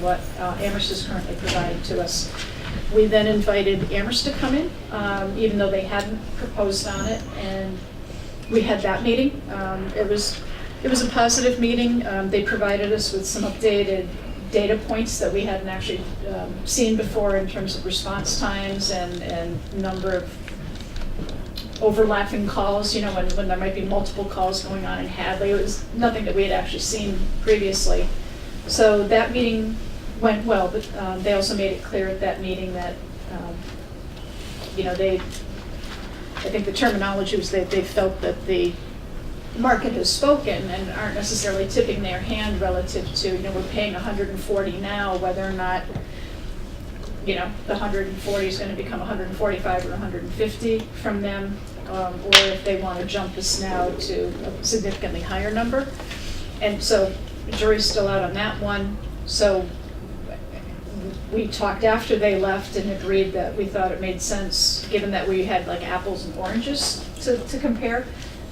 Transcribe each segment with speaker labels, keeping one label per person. Speaker 1: what uh, Amherst is currently providing to us. We then invited Amherst to come in, um, even though they hadn't proposed on it, and we had that meeting. Um, It was, it was a positive meeting. Um, They provided us with some updated data points that we hadn't actually um, seen before in terms of response times and, and number of overlapping calls, you know, when, when there might be multiple calls going on in Hadley. It was nothing that we had actually seen previously. So that meeting went well, but um, they also made it clear at that meeting that, um, you know, they, I think the terminology was that they felt that the market has spoken and aren't necessarily tipping their hand relative to, you know, we're paying 140 now, whether or not, you know, the 140 is going to become 145 or 150 from them, um, or if they want to jump us now to a significantly higher number. And so jury's still out on that one. So we talked after they left and agreed that we thought it made sense, given that we had like apples and oranges to, to compare,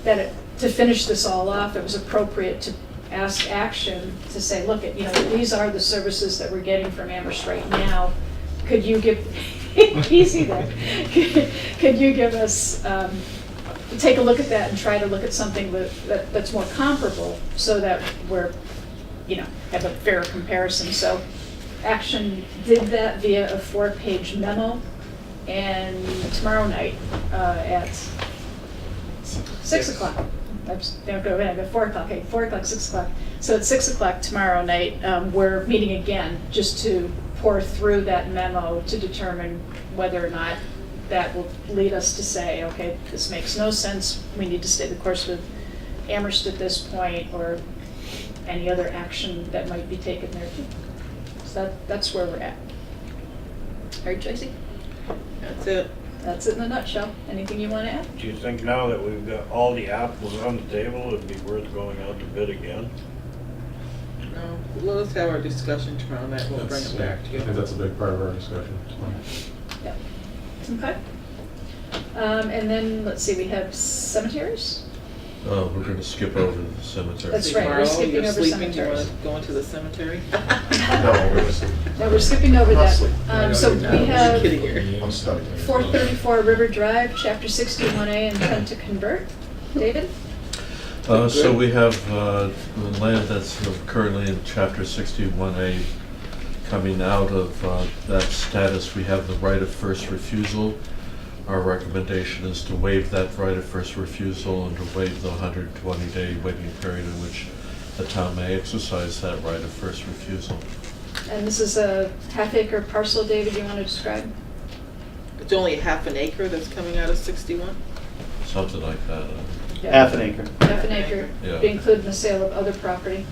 Speaker 1: that it, to finish this all off, it was appropriate to ask action to say, look, you know, these are the services that we're getting from Amherst right now. Could you give, easy there, could you give us, um, take a look at that and try to look at something with- that, that's more comparable so that we're, you know, have a fair comparison. So Action did that via a four-page memo and tomorrow night uh, at six o'clock. Oops, Don't go back, at four o'clock, okay, four o'clock, six o'clock. So at six o'clock tomorrow night, um, we're meeting again just to pour through that memo to determine whether or not that will lead us to say, okay, this makes no sense, we need to stay the course with Amherst at this point, or any other action that might be taken there too. So that, that's where we're at. All right, Tracy,
Speaker 2: That's it.
Speaker 1: that's it in a nutshell. Anything you want to add?
Speaker 3: Do you think now that we've got all the apples on the table, it'd be worth going out to bid again?
Speaker 2: No, let us um, have our discussion tomorrow night. We'll bring it back to
Speaker 4: I think
Speaker 2: you.
Speaker 4: that's a big part of our discussion.
Speaker 1: Yep. Okay. Um, and then, let's see, we have cemeteries?
Speaker 5: Oh, we're gonna skip over the cemetery.
Speaker 1: That's right, we're
Speaker 2: Tomorrow,
Speaker 1: skipping
Speaker 2: you're
Speaker 1: over
Speaker 2: sleeping, you
Speaker 1: cemeteries.
Speaker 2: wanna go into the cemetery?
Speaker 4: No, we're just-
Speaker 1: No, we're skipping over that.
Speaker 4: Mostly.
Speaker 1: Um, so
Speaker 2: No,
Speaker 1: we
Speaker 2: we're
Speaker 1: have
Speaker 2: Kidding here.
Speaker 4: I'm studying. it.
Speaker 1: four thirty-four River Drive, chapter sixty-one A, intent to convert. David?
Speaker 5: Uh, so we have, uh, the land that's currently in chapter sixty-one A coming out of, uh, that status, we have the right of first refusal. Our recommendation is to waive that right of first refusal and to waive the hundred and twenty day waiting period in which the town may exercise that right of first refusal.
Speaker 1: And this is a half acre parcel, David, you want to describe?
Speaker 2: It's only half an acre that's coming out of sixty-one?
Speaker 5: Something like that, uh,
Speaker 6: Half an acre.
Speaker 1: Half an acre,
Speaker 5: Yeah.
Speaker 1: to include in the sale of other property.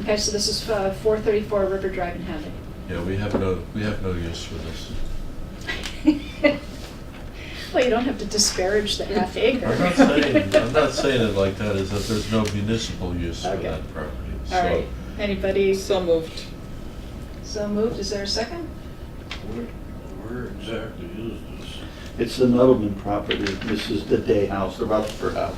Speaker 1: Okay, so this is uh, four thirty-four River Drive in Hadley.
Speaker 5: yeah, we have no, we have no use for this.
Speaker 1: Well, you don't have to disparage the half acre.
Speaker 5: I'm not saying, I'm not saying it like that, is that there's no municipal use for
Speaker 1: Okay.
Speaker 5: that property, so.
Speaker 1: All right, anybody
Speaker 2: So moved.
Speaker 1: so moved, is there a second?
Speaker 3: Where, where exactly is this?
Speaker 6: It's the Nudelman property. This is the day house, the Rutherford House.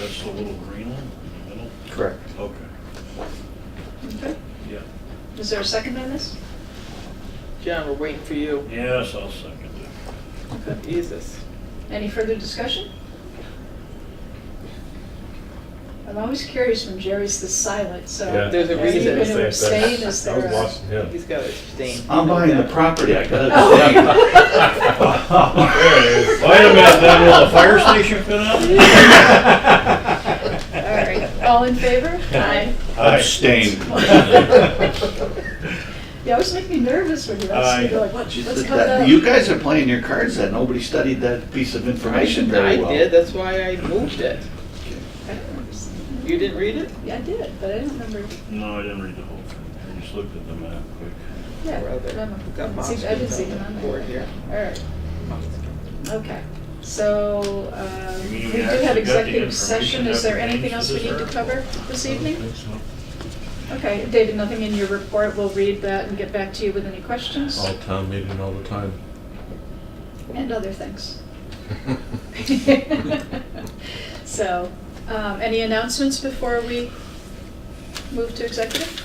Speaker 3: That's the little green one in the middle?
Speaker 6: Correct.
Speaker 3: Okay,
Speaker 1: Okay.
Speaker 3: yeah.
Speaker 1: Is there a second on this?
Speaker 2: John, we're waiting for you.
Speaker 3: Yes, I'll second that.
Speaker 2: Jesus.
Speaker 1: Any further discussion? I'm always curious when Jerry's this silent, so.
Speaker 4: Yeah.
Speaker 2: There's a
Speaker 1: Are you
Speaker 2: reason.
Speaker 1: gonna
Speaker 2: Same thing.
Speaker 1: abstain? Is
Speaker 4: I
Speaker 1: there
Speaker 4: was
Speaker 1: a-
Speaker 4: watching him.
Speaker 2: He's gotta abstain.
Speaker 6: I'm buying the property, I gotta
Speaker 1: Oh.
Speaker 3: Oh.
Speaker 4: There it is.
Speaker 3: Wait a minute, then will the fire station fit up?
Speaker 1: All right, all in favor? Aye.
Speaker 6: Abstain.
Speaker 1: You always make me nervous when you're asking, you're like, what, what's coming up?
Speaker 6: You guys are playing your cards that nobody studied that piece of information
Speaker 2: I
Speaker 6: very well.
Speaker 2: did, that's why I moved it.
Speaker 1: I don't understand.
Speaker 2: You didn't read it?
Speaker 1: Yeah, I did, but I don't remember.
Speaker 3: No, I didn't read the whole thing, I just looked at the map quick.
Speaker 1: Yeah,
Speaker 2: Or other-
Speaker 1: remember.
Speaker 2: Got
Speaker 1: See, I didn't
Speaker 2: Moskowitz
Speaker 1: see
Speaker 2: on
Speaker 1: him
Speaker 2: the
Speaker 1: on there.
Speaker 2: board here.
Speaker 1: All right, okay. So, um,
Speaker 3: You
Speaker 1: we
Speaker 3: mean
Speaker 1: do
Speaker 3: we actually got
Speaker 1: have
Speaker 3: the
Speaker 1: executive session.
Speaker 3: information
Speaker 1: Is there
Speaker 3: that
Speaker 1: anything else
Speaker 3: pertains
Speaker 1: we
Speaker 3: to
Speaker 1: need to
Speaker 3: this
Speaker 1: cover this
Speaker 5: I don't
Speaker 1: evening?
Speaker 5: think so.
Speaker 1: Okay, David, nothing in your report. We'll read that and get back to you with any questions
Speaker 3: Oh.
Speaker 5: All town meeting all the time.
Speaker 1: and other things. So, um, any announcements before we move to executive?